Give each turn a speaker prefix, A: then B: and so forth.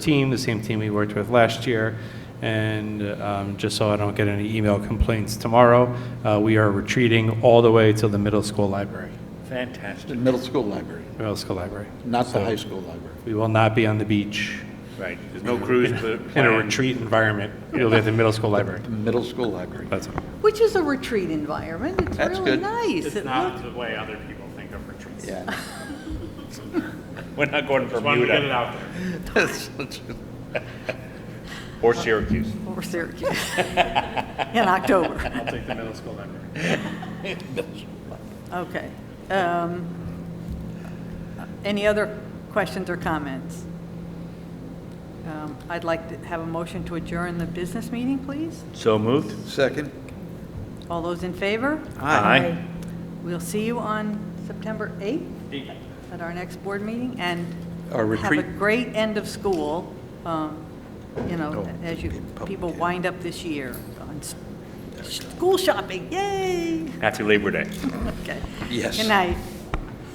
A: team, the same team we worked with last year. And um, just so I don't get any email complaints tomorrow, uh, we are retreating all the way to the middle school library,
B: Fantastic,
C: The middle school library,
A: middle school library.
C: not the
A: So
C: high school library.
A: We will not be on the beach
B: right. There's no cruise pl-
A: in a
B: planned.
A: retreat environment. We'll be at the middle school library.
C: The middle school library.
A: That's all.
D: Which is a retreat environment. It's
C: That's
D: really
C: good.
D: nice.
E: It's
D: It
E: not
D: looks-
E: the way other people think of retreats.
C: Yeah.
B: We're not going to
E: Just wanted to get it
B: Bermuda
E: out there.
C: That's such a-
B: or Syracuse.
D: Or Syracuse Oh, in October.
A: I'll take the middle school library.
D: Okay. Um, Any other questions or comments? Um, I'd like to have a motion to adjourn the business meeting, please.
B: So moved?
C: Second?
D: All those in favor?
B: Aye.
D: We'll see you on September 8th at our next board meeting, and
C: Our
D: have a
C: retreat.
D: great end of school, um, you know,
C: Oh,
D: as you,
C: in public,
D: people
C: yeah.
D: wind up this year on s- school shopping, yay!
B: Happy Labor Day.
D: Okay.
C: Yes.
D: Good night.